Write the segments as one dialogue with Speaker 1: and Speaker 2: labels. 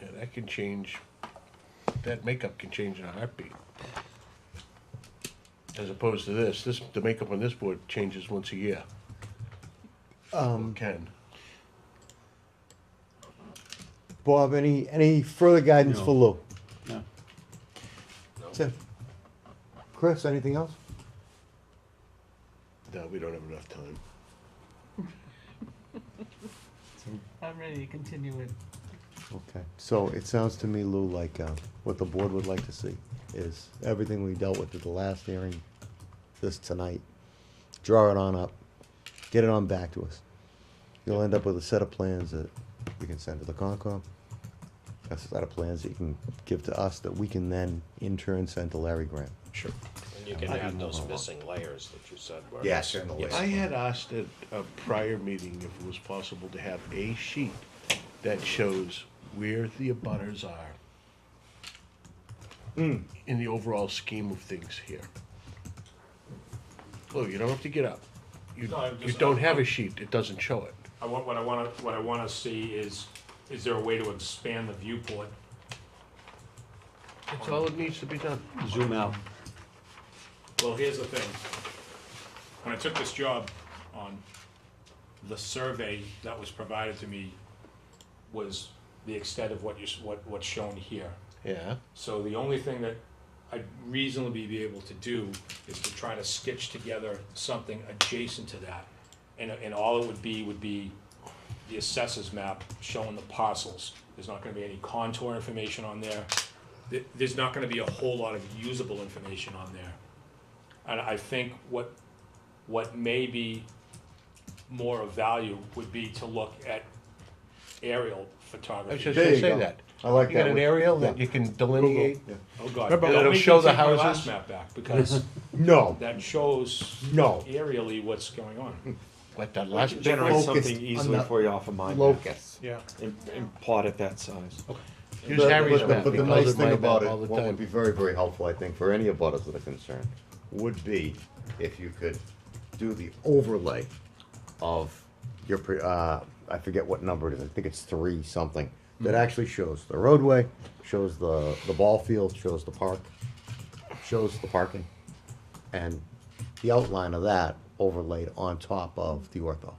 Speaker 1: that can change, that makeup can change in a heartbeat. As opposed to this, this, the makeup on this board changes once a year. Um. Can.
Speaker 2: Bob, any, any further guidance for Lou?
Speaker 3: No.
Speaker 2: That's it. Chris, anything else?
Speaker 1: No, we don't have enough time.
Speaker 4: I'm ready to continue it.
Speaker 2: Okay, so it sounds to me, Lou, like, uh, what the board would like to see is everything we dealt with at the last hearing, this tonight, draw it on up, get it on back to us. You'll end up with a set of plans that we can send to the Concom, a set of plans that you can give to us that we can then in turn send to Larry Graham.
Speaker 5: Sure.
Speaker 6: And you can add those missing layers that you said were.
Speaker 5: Yeah, certainly.
Speaker 1: I had asked at a prior meeting if it was possible to have a sheet that shows where the abutters are
Speaker 2: Hmm.
Speaker 1: in the overall scheme of things here. Lou, you don't have to get up. You,
Speaker 7: No, I'm
Speaker 1: you
Speaker 7: just-
Speaker 1: don't have a sheet, it doesn't show it.
Speaker 7: I want, what I wanna, what I wanna see is, is there a way to expand the viewport?
Speaker 1: That's all that needs to be done.
Speaker 3: Zoom out.
Speaker 7: Well, here's the thing. When I took this job on, the survey that was provided to me was the extent of what you, s- what, what's shown here.
Speaker 1: Yeah,
Speaker 7: So the only thing that I'd reasonably be able to do is to try to stitch together something adjacent to that. And, and all it would be, would be the assessors map showing the parcels. There's not gonna be any contour information on there. There- there's not gonna be a whole lot of usable information on there. And I think what, what may be more of value would be to look at aerial
Speaker 1: I was
Speaker 7: photography.
Speaker 1: just
Speaker 2: There
Speaker 1: gonna
Speaker 2: you
Speaker 1: say
Speaker 2: go.
Speaker 1: that.
Speaker 2: I like
Speaker 1: You got
Speaker 2: that
Speaker 1: an
Speaker 2: one.
Speaker 1: aerial that
Speaker 2: Yeah.
Speaker 1: you can delineate?
Speaker 2: Yeah.
Speaker 7: Oh, God.
Speaker 1: Remember,
Speaker 7: Don't
Speaker 1: it'll
Speaker 7: make
Speaker 1: show
Speaker 7: me
Speaker 1: the
Speaker 7: take my last
Speaker 1: houses.
Speaker 7: Map back, because
Speaker 2: No,
Speaker 7: that shows
Speaker 2: No.
Speaker 7: aerially what's going on.
Speaker 1: Like that last picture.
Speaker 3: Generate
Speaker 2: focused
Speaker 3: something easily
Speaker 2: on the
Speaker 3: for you off of mine.
Speaker 2: locus.
Speaker 7: Yeah.
Speaker 3: And, and plot at that size.
Speaker 1: Here's
Speaker 2: But-
Speaker 1: Harry's
Speaker 2: but-
Speaker 1: map.
Speaker 2: But
Speaker 1: He
Speaker 2: the
Speaker 1: calls
Speaker 2: nice
Speaker 1: my
Speaker 2: thing
Speaker 1: map
Speaker 2: about
Speaker 1: all
Speaker 2: it,
Speaker 1: the
Speaker 2: what
Speaker 1: time.
Speaker 2: would be very, very helpful, I think, for any abutters that are concerned, would be if you could do the overlay of your, pre- uh, I forget what number it is, I think it's three something,
Speaker 3: Hmm.
Speaker 2: that actually shows the roadway, shows the, the ball field, shows the park, shows the parking, and the outline of that overlaid on top of the ortho.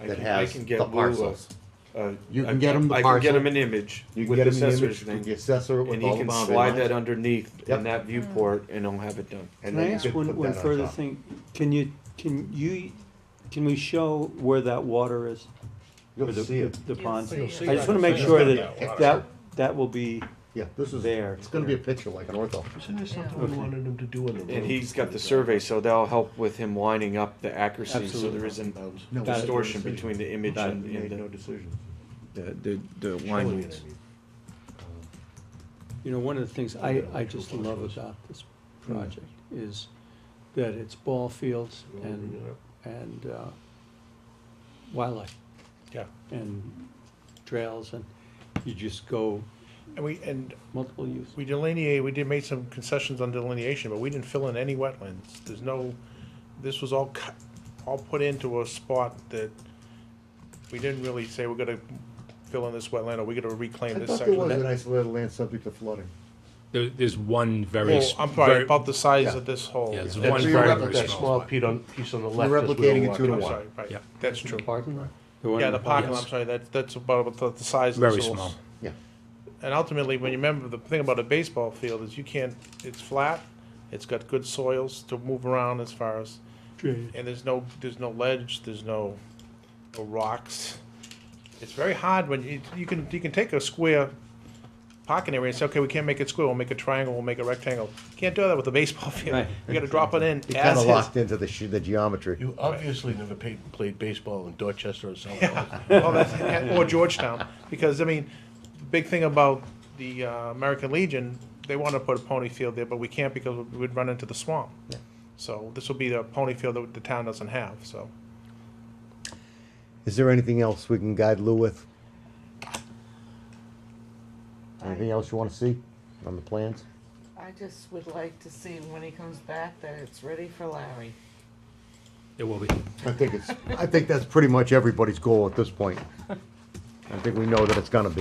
Speaker 3: I
Speaker 2: That
Speaker 3: can- I
Speaker 2: has
Speaker 3: can get
Speaker 2: the
Speaker 3: Lou a-
Speaker 2: parcels.
Speaker 3: a-
Speaker 2: You
Speaker 3: I-
Speaker 2: can get him the
Speaker 3: I can get
Speaker 2: parcel.
Speaker 3: him an image
Speaker 2: You can
Speaker 3: with
Speaker 2: get
Speaker 3: the
Speaker 2: him an image,
Speaker 3: assessor's
Speaker 2: you can
Speaker 3: thing.
Speaker 2: assessor it with
Speaker 3: And
Speaker 2: all
Speaker 3: he
Speaker 2: the
Speaker 3: can
Speaker 2: boundary
Speaker 3: slide
Speaker 2: lines.
Speaker 3: that underneath
Speaker 2: Yep.
Speaker 3: in that viewport and I'll have it done.
Speaker 2: and
Speaker 8: Can
Speaker 2: then
Speaker 8: I
Speaker 2: you
Speaker 8: ask
Speaker 2: could
Speaker 8: one,
Speaker 2: put
Speaker 8: one
Speaker 2: that on
Speaker 8: further
Speaker 2: top.
Speaker 8: thing? Can you, can you, can we show where that water is?
Speaker 2: You'll
Speaker 8: Or the-
Speaker 2: see it.
Speaker 8: The pond?
Speaker 4: You'll see
Speaker 8: I just
Speaker 4: it.
Speaker 8: wanna make
Speaker 4: It's
Speaker 8: sure
Speaker 4: gonna
Speaker 8: that,
Speaker 7: be a
Speaker 8: that, that will be,
Speaker 2: Yeah, this is
Speaker 8: There.
Speaker 2: It's going to be a picture like an ortho.
Speaker 1: Isn't there something we wanted him to do on the road?
Speaker 3: And he's got the survey, so that'll help with him lining up the accuracy, so there isn't
Speaker 2: No,
Speaker 8: Got it.
Speaker 3: distortion between the image
Speaker 8: Got it.
Speaker 3: and,
Speaker 2: You made no
Speaker 3: and
Speaker 2: decision.
Speaker 3: the, the, the the line reads.
Speaker 8: you know, one of the things I, I just love about this project is that it's ball fields and, and, uh, wildlife
Speaker 9: Yeah,
Speaker 8: and trails and you just go
Speaker 9: and we, and
Speaker 8: multiple use.
Speaker 9: we delineate, we did, made some concessions on delineation, but we didn't fill in any wetlands. There's no, this was all cut, all put into a spot that we didn't really say we're gonna fill in this wetland, or we're gonna reclaim
Speaker 2: I
Speaker 9: this
Speaker 2: thought there
Speaker 9: section.
Speaker 2: was an isolated land subject to flooding.
Speaker 7: There, there's one very.
Speaker 9: Well,
Speaker 7: s-
Speaker 9: I'm sorry,
Speaker 7: very-
Speaker 9: about the size
Speaker 2: Yeah.
Speaker 9: of this hole.
Speaker 7: Yeah, it's
Speaker 9: Yeah,
Speaker 7: one
Speaker 2: so
Speaker 7: very,
Speaker 2: you're up
Speaker 7: very
Speaker 2: at
Speaker 1: That small
Speaker 7: small. spot.
Speaker 1: piece on, piece on the
Speaker 2: You're
Speaker 1: left. as we were
Speaker 2: replicating it two
Speaker 1: walking.
Speaker 2: to
Speaker 9: I'm
Speaker 2: one.
Speaker 9: sorry, right,
Speaker 7: Yeah.
Speaker 9: that's true.
Speaker 8: Parking lot?
Speaker 9: Yeah, the parking lot,
Speaker 7: Yes.
Speaker 9: I'm sorry, that, that's about, about the size of this
Speaker 7: Very
Speaker 9: little
Speaker 7: small.
Speaker 9: s-
Speaker 2: Yeah.
Speaker 9: And ultimately, when you remember, the thing about a baseball field is you can't, it's flat, it's got good soils to move around as far as, and there's no, there's no ledge, there's no, no rocks. It's very hard when you, you can, you can take a square parking area and say, okay, we can't make it square, we'll make a triangle, we'll make a rectangle. Can't do that with a baseball field.
Speaker 8: Right.
Speaker 9: You gotta drop it in
Speaker 2: It kind
Speaker 9: as
Speaker 2: of
Speaker 9: is.
Speaker 2: locked into the sh- the geometry.
Speaker 1: You obviously never paid, played baseball in Dorchester or something.
Speaker 9: Well, that's, or Georgetown, because I mean, the big thing about the uh, American Legion, they want to put a pony field there, but we can't because we would run into the swamp. So this will be the pony field that the town doesn't have. So
Speaker 2: Is there anything else we can guide Lou with? Anything else you want to see on the plans?
Speaker 4: I just would like to see when he comes back that it's ready for Larry.
Speaker 7: It will be.
Speaker 2: I think it's, I think that's pretty much everybody's goal at this point. I think we know that it's gonna be.